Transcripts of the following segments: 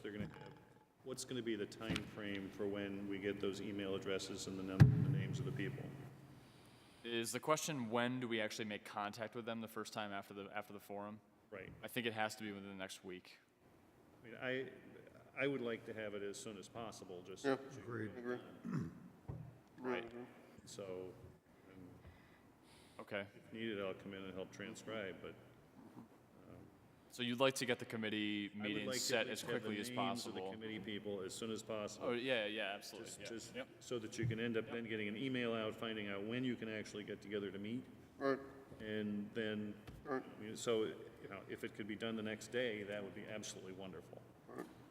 they're going to have, what's going to be the time frame for when we get those email addresses and the num- the names of the people? Is the question when do we actually make contact with them the first time after the after the forum? Right. I think it has to be within the next week. I mean, I, I would like to have it as soon as possible, just. Yeah. Agreed. Agree. Right. So, um, Okay. if needed, I'll come in and help transcribe, but So you'd like to get the committee I would meeting like to at set as least have the quickly as names of the possible. committee people as soon as possible. Oh yeah, yeah, absolutely. Just- yeah. Just so that you can end up then getting an email out, finding out when you can actually get together to meet. Right, And then, Right. I mean, so, you know, if it could be done the next day, that would be absolutely wonderful.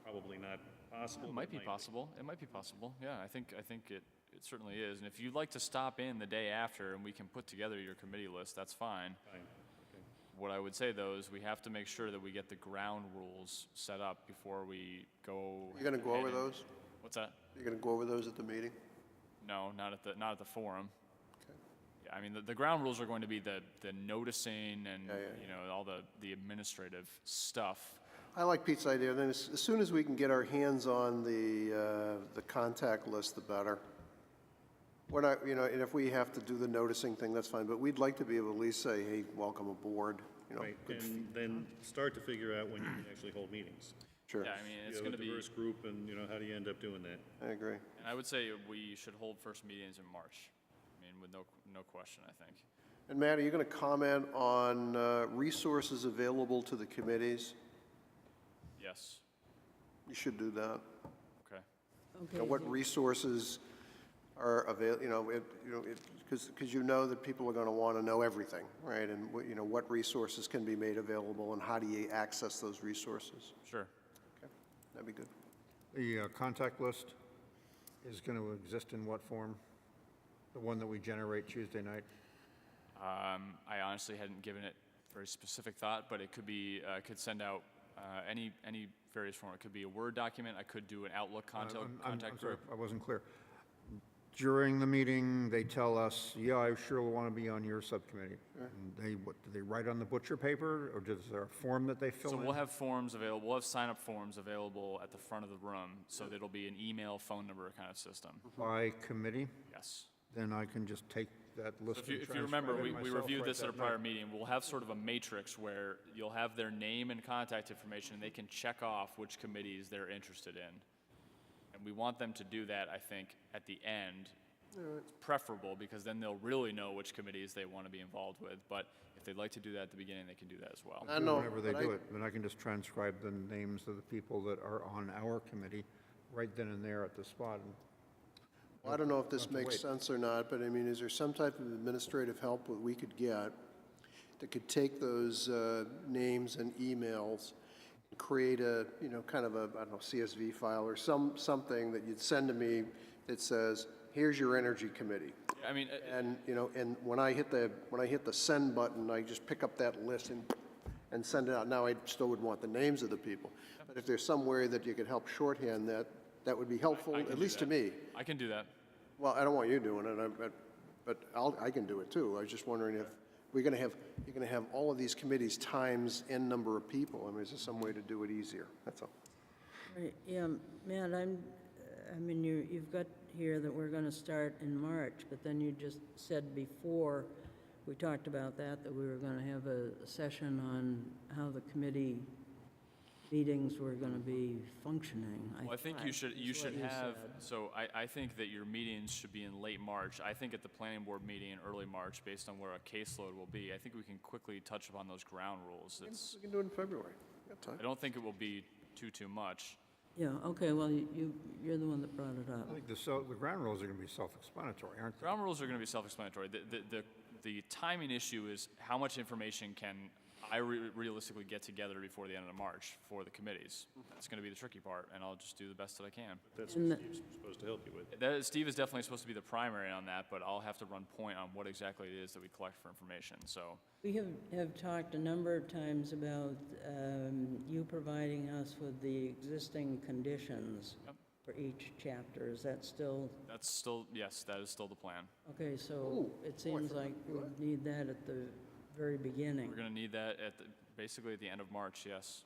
Probably not possible. It but might be possible. It might be possible. Yeah, I think I think it, it certainly is. And if you'd like to stop in the day after and we can put together your committee list, that's fine. Fine. Okay. What I would say though is we have to make sure that we get the ground rules set up before we go. you're gonna go ahead over and- those? What's that? You're gonna go over those at the meeting? No, not at the not at the forum. Yeah, I mean the, the ground rules are going to be the the noticing and Yeah, yeah, you know all the the administrative stuff. I like Pete's idea, then as, as soon as we can get our hands on the, uh, the contact list, the better. We're not, you know, and if we have to do the noticing thing, that's fine, but we'd like to be able to at least say, hey, welcome aboard, you know, Right, good f- and then start to figure out when you can actually hold meetings. sure, Yeah, I mean it's You going have to a be. diverse group and, you know, how do you end up doing that? I agree. And I would say we should hold first meetings in March. I mean, with no no question, I think. And Matt, are you gonna comment on, uh, resources available to the committees? Yes. You should do that. Okay. You know, Mm-hmm. what resources are avail, you know, it, you know, it, because, because you know that people are going to want to know everything, right? And, what- you know, what resources can be made available and how do you access those resources? Sure. Okay, That'd be good. The uh, contact list is going to exist in what form? The one that we generate Tuesday night? Um, I honestly hadn't given it very specific thought, but it could be uh, I could send out uh, any any various form. It could be a Word document. I could do an Outlook contact I'm- I'm- contact I'm sorry, group. I wasn't clear. During the meeting, they tell us, yeah, I sure want to be on your subcommittee. And They, what, do they write on the butcher paper, or is there a form that they fill So in? we'll have forms available. We'll have sign-up forms available at the front of the room, so that it'll be an email, phone number kind of system. By committee, Yes. then I can just take that list If you, and if you transcribe remember, it we, we myself reviewed right this at a that night. prior meeting. We'll have sort of a matrix where you'll have their name and contact information, and they can check off which committees they're interested in. And we want them to do that, I think, at the end. It's preferable, because then they'll really know which committees they want to be involved with. But if they'd like to do that at the beginning, they can do that as well. I do know, Whenever they but I- do it, then I can just transcribe the names of the people that are on our committee right then and there at the spot. and I don't know if this Have to makes wait. sense or not, but I mean, is there some type of administrative help that we could get that could take those uh, names and emails, and create a, you know, kind of a, I don't know, CSV file or some, something that you'd send to me that says, here's your energy committee. I mean, uh, And, you know, and when I hit the, when I hit the send button, I just pick up that list and, and send it out. Now, I still would want the names of the people. But if there's some way that you could help shorthand that, that would be helpful, can do at least to that. me. I can do that. Well, I don't want you doing it, I- but, but I'll, I can do it too. I was just wondering if, we're gonna have, you're gonna have all of these committees times n number of people. I mean, is there some way to do it easier? That's all. Right, Yeah, Matt, I'm, I mean, you, you've got here that we're gonna start in March, but then you just said before, we talked about that, that we were gonna have a session on how the committee meetings were gonna be functioning, I Well, I think you thought, should, you is what should have, said. so I, I think that your meetings should be in late March. I think at the planning board meeting in early March, based on where our caseload will be, I think we can quickly touch upon those ground rules. It's, We can do it in February. Got time. I don't think it will be too, too much. Yeah, okay, well, you, you're the one that brought it up. I think the, so, the ground rules are going to be self-explanatory, aren't they? Ground rules are going to be self-explanatory. The, the, the, the timing issue is how much information can I re- realistically get together before the end of March for the committees? Mm-hmm. That's going to be the tricky part, and I'll just do the best that I can. That's And what the- Steve's supposed to help you with. That is, Steve is definitely supposed to be the primary on that, but I'll have to run point on what exactly it is that we collect for information. So We have, have talked a number of times about um, you providing us with the existing conditions Yep. for each chapter. Is that still, that's still, yes, that is still the plan. okay, so it seems like we need that at the very beginning. We're going to need that at the, basically at the end of March, yes.